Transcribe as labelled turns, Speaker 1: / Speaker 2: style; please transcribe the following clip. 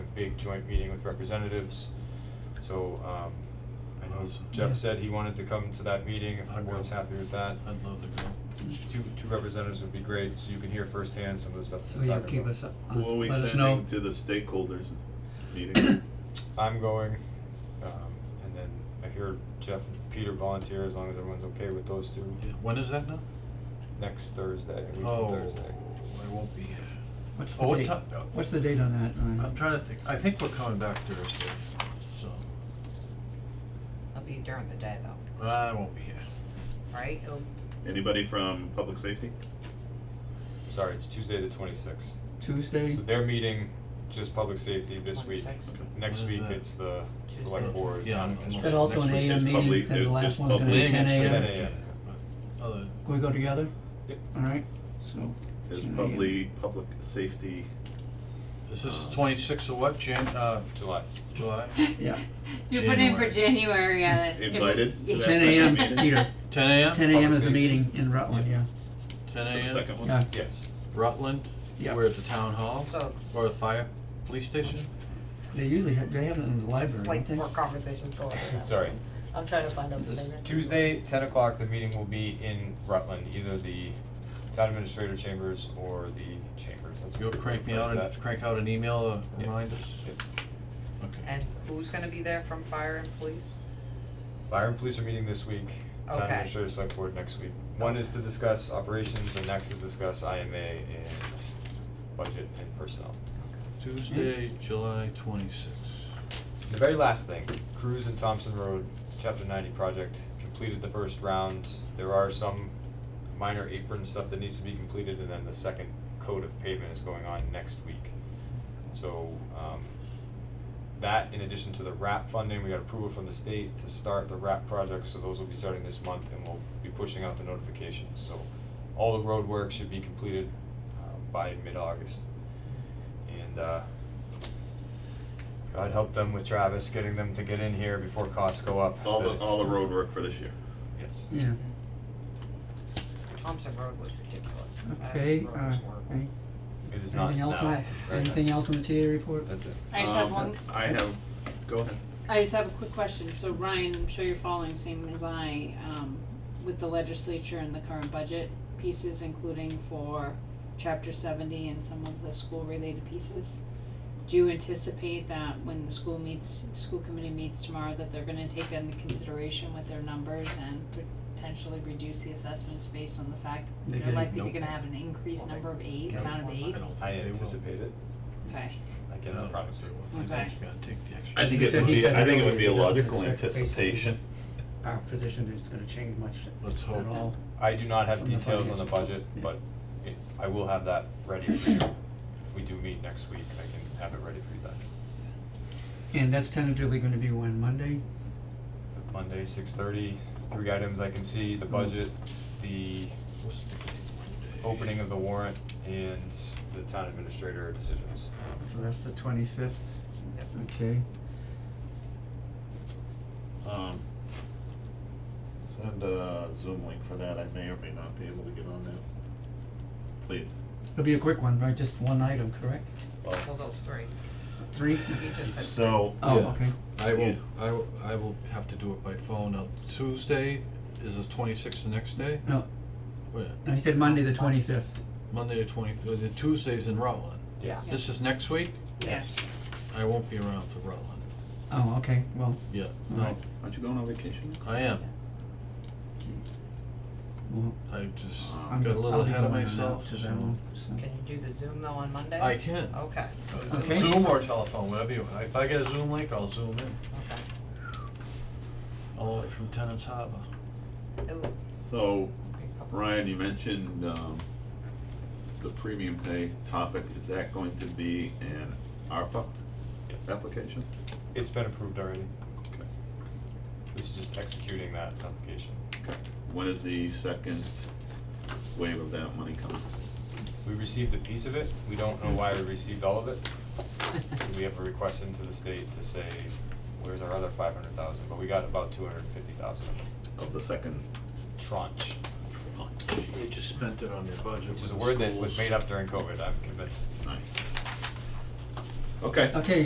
Speaker 1: big joint meeting with representatives. So, um, I know
Speaker 2: Awesome.
Speaker 1: Jeff
Speaker 3: Yeah.
Speaker 1: said he wanted to come to that meeting, if the
Speaker 2: I'd go.
Speaker 1: board's happy with that.
Speaker 2: I'd love to go.
Speaker 1: Two, two representatives would be great, so you can hear firsthand some of the stuff
Speaker 3: So
Speaker 1: we're talking
Speaker 3: you'll
Speaker 1: about.
Speaker 3: keep us up, uh,
Speaker 4: Who are we
Speaker 3: let us know.
Speaker 4: sending to the stakeholders meeting?
Speaker 1: I'm going, um, and then I hear Jeff and Peter volunteer, as long as everyone's okay with those two,
Speaker 2: Yeah, When is that now?
Speaker 1: next Thursday, a week from
Speaker 2: Oh,
Speaker 1: Thursday.
Speaker 2: I won't be here.
Speaker 3: What's
Speaker 2: Oh,
Speaker 3: the
Speaker 2: what Uh,
Speaker 3: date,
Speaker 2: ti- uh,
Speaker 3: what's the date on that, Ryan?
Speaker 2: I'm trying to think, I think we're coming back Thursday, so,
Speaker 5: It'll be during the day though,
Speaker 2: I won't be here.
Speaker 5: right? It'll-
Speaker 4: Anybody from public safety?
Speaker 1: Sorry, it's Tuesday the twenty-sixth.
Speaker 3: Tuesday,
Speaker 1: So their meeting, just public safety this week.
Speaker 5: 26th.
Speaker 2: Okay.
Speaker 1: Next
Speaker 2: When is
Speaker 1: week,
Speaker 2: that?
Speaker 1: it's the
Speaker 2: Tuesday.
Speaker 1: select board.
Speaker 2: Yeah, I'm- I'm
Speaker 1: Construction.
Speaker 3: but also
Speaker 4: next
Speaker 3: an
Speaker 4: week is
Speaker 3: AM meeting,
Speaker 4: public-
Speaker 3: because
Speaker 4: is-
Speaker 3: the last
Speaker 4: is
Speaker 3: one's gonna be
Speaker 1: public.
Speaker 3: ten AM.
Speaker 1: Yeah,
Speaker 2: Then
Speaker 1: yeah, yeah.
Speaker 2: again, but Other,
Speaker 3: Can we go together?
Speaker 1: Yep.
Speaker 3: Alright, so.
Speaker 4: Is
Speaker 3: 10 a.m.
Speaker 4: public, public safety,
Speaker 2: is this twenty-sixth of what, Jan, uh,
Speaker 1: July.
Speaker 2: July?
Speaker 3: Yeah,
Speaker 6: You put in for January, yeah. that-
Speaker 4: Invited to that
Speaker 3: ten AM, Peter,
Speaker 2: Ten AM?
Speaker 3: ten AM is the
Speaker 1: Public
Speaker 3: meeting in Rutland, yeah,
Speaker 2: Ten
Speaker 4: for the
Speaker 2: AM,
Speaker 4: second one?
Speaker 3: yeah,
Speaker 1: Yes.
Speaker 2: Rutland,
Speaker 3: Yeah.
Speaker 2: we're at the town hall,
Speaker 5: So
Speaker 2: or the fire, police station?
Speaker 3: they usually have, they have it in the
Speaker 5: it's
Speaker 3: library,
Speaker 5: like
Speaker 3: don't they?
Speaker 5: more conversations going on.
Speaker 1: Sorry.
Speaker 5: I'm trying to find out the thing.
Speaker 1: Tuesday, ten o'clock, the meeting will be in Rutland, either the town administrator chambers or the chambers. That's
Speaker 2: You'll
Speaker 1: what we
Speaker 2: crank me
Speaker 1: refer
Speaker 2: out,
Speaker 1: to
Speaker 2: and
Speaker 1: that.
Speaker 2: crank out an email to
Speaker 1: Yeah.
Speaker 2: remind us?
Speaker 1: Yep.
Speaker 2: Okay,
Speaker 5: And who's gonna be there from fire and police?
Speaker 1: Fire and police are meeting this week, town
Speaker 5: Okay.
Speaker 1: administrator, select board next week. One is to discuss operations and next is discuss IMA and budget and personnel.
Speaker 2: Tuesday, July twenty-sixth.
Speaker 1: The very last thing, Cruz and Thompson Road, chapter ninety project, completed the first round. There are some minor apron stuff that needs to be completed and then the second coat of pavement is going on next week. So, um, that in addition to the wrap funding, we got approval from the state to start the wrap projects, so those will be starting this month and we'll be pushing out the notifications, so all the road work should be completed, uh, by mid-August. And, uh, God help them with Travis, getting them to get in here before costs go up.
Speaker 4: All the,
Speaker 1: That is-
Speaker 4: all the road work for this year.
Speaker 1: Yes.
Speaker 3: Yeah,
Speaker 5: Thompson Road was ridiculous. That
Speaker 3: okay,
Speaker 5: road
Speaker 3: uh,
Speaker 5: was horrible.
Speaker 3: any-
Speaker 1: It is not
Speaker 3: anything else
Speaker 1: now.
Speaker 3: on,
Speaker 1: It's very
Speaker 3: anything
Speaker 1: nice.
Speaker 3: else on the TA report?
Speaker 1: That's it.
Speaker 6: I just have
Speaker 4: Um,
Speaker 6: one,
Speaker 4: I have,
Speaker 2: Go ahead.
Speaker 6: I just have a quick question, so Ryan, I'm sure you're following same as I, um, with the legislature and the current budget pieces, including for chapter seventy and some of the school related pieces. Do you anticipate that when the school meets, school committee meets tomorrow, that they're gonna take that into consideration with their numbers and potentially reduce the assessments based on the fact
Speaker 3: They
Speaker 6: that they're
Speaker 3: did,
Speaker 6: likely to
Speaker 2: nope.
Speaker 6: gonna have an increased number of aid,
Speaker 5: Nope.
Speaker 6: amount of aid?
Speaker 2: I don't think
Speaker 1: I
Speaker 2: they will.
Speaker 1: anticipate it.
Speaker 6: Okay,
Speaker 1: I cannot promise it.
Speaker 2: Oh. I think
Speaker 6: Okay.
Speaker 2: you gotta take the extra.
Speaker 4: I think
Speaker 3: He
Speaker 4: it
Speaker 3: said-
Speaker 4: would
Speaker 3: he
Speaker 4: be,
Speaker 3: said
Speaker 4: I think it would be a
Speaker 3: earlier he doesn't
Speaker 4: logical
Speaker 3: expect basically-
Speaker 4: anticipation.
Speaker 3: Our position is gonna change much
Speaker 2: Let's
Speaker 3: at
Speaker 2: hope.
Speaker 3: all,
Speaker 1: I do not have
Speaker 3: From the
Speaker 1: details on the
Speaker 3: finance.
Speaker 1: budget,
Speaker 3: Yeah.
Speaker 1: but it, I will have that ready for you. If we do meet next week, I can have it ready for you then.
Speaker 3: and that's tentatively gonna be when, Monday?
Speaker 1: Monday, six thirty, three items I can see, the budget, the
Speaker 2: What's the date? Monday.
Speaker 1: opening of the warrant, and the town administrator decisions.
Speaker 3: So that's the twenty-fifth,
Speaker 5: Yep.
Speaker 3: okay.
Speaker 4: Um, send a Zoom link for that, I may or may not be able to get on that. Please.
Speaker 3: It'll be a quick one, right, just one item, correct? uh,
Speaker 5: Well, those three.
Speaker 3: Three?
Speaker 5: He just said.
Speaker 4: So,
Speaker 3: Oh,
Speaker 2: Yeah.
Speaker 3: okay,
Speaker 2: I
Speaker 4: Yeah.
Speaker 2: will, I will, I will have to do it by phone, now Tuesday, is this twenty-sixth the next day?
Speaker 3: no,
Speaker 2: Wait,
Speaker 3: no, he said Monday the twenty-fifth.
Speaker 2: Monday the twenty, uh, the Tuesday's in Rutland,
Speaker 1: Yes.
Speaker 2: this is next week,
Speaker 6: yeah.
Speaker 2: I won't be around for Rutland,
Speaker 3: Oh, okay, well,
Speaker 2: yeah, no,
Speaker 3: Alright.
Speaker 4: aren't you going on vacation?
Speaker 2: I am,
Speaker 3: well,
Speaker 2: I just
Speaker 3: I'm,
Speaker 2: got a
Speaker 3: Um, I'll be
Speaker 2: little ahead of
Speaker 3: going on out
Speaker 2: myself,
Speaker 3: to
Speaker 2: so-
Speaker 3: that one, so.
Speaker 5: Can you do the Zoom though on Monday?
Speaker 2: I can,
Speaker 5: Okay, so Zoom,
Speaker 3: Okay.
Speaker 5: okay.
Speaker 2: Zoom or telephone, whatever you, if I get a Zoom link, I'll zoom in, all the way from Tenants Harbor.
Speaker 5: It'll
Speaker 4: So,
Speaker 5: be a couple-
Speaker 4: Ryan, you mentioned, um, the premium pay topic, is that going to be an ARPA
Speaker 1: Yes.
Speaker 4: application?
Speaker 1: It's been approved already.
Speaker 4: Okay.
Speaker 1: It's just executing that application.
Speaker 4: When is the second wave of that money coming?
Speaker 1: We received a piece of it, we don't know why we received all of it. So we have a request into the state to say, where's our other five hundred thousand, but we got about two hundred and fifty thousand of it.
Speaker 4: Of the second
Speaker 1: Tranche,
Speaker 4: tranche?
Speaker 2: They just spent it on their budget
Speaker 1: which is a word that was made up during COVID, I'm convinced.
Speaker 4: Nice. Okay.
Speaker 3: Okay,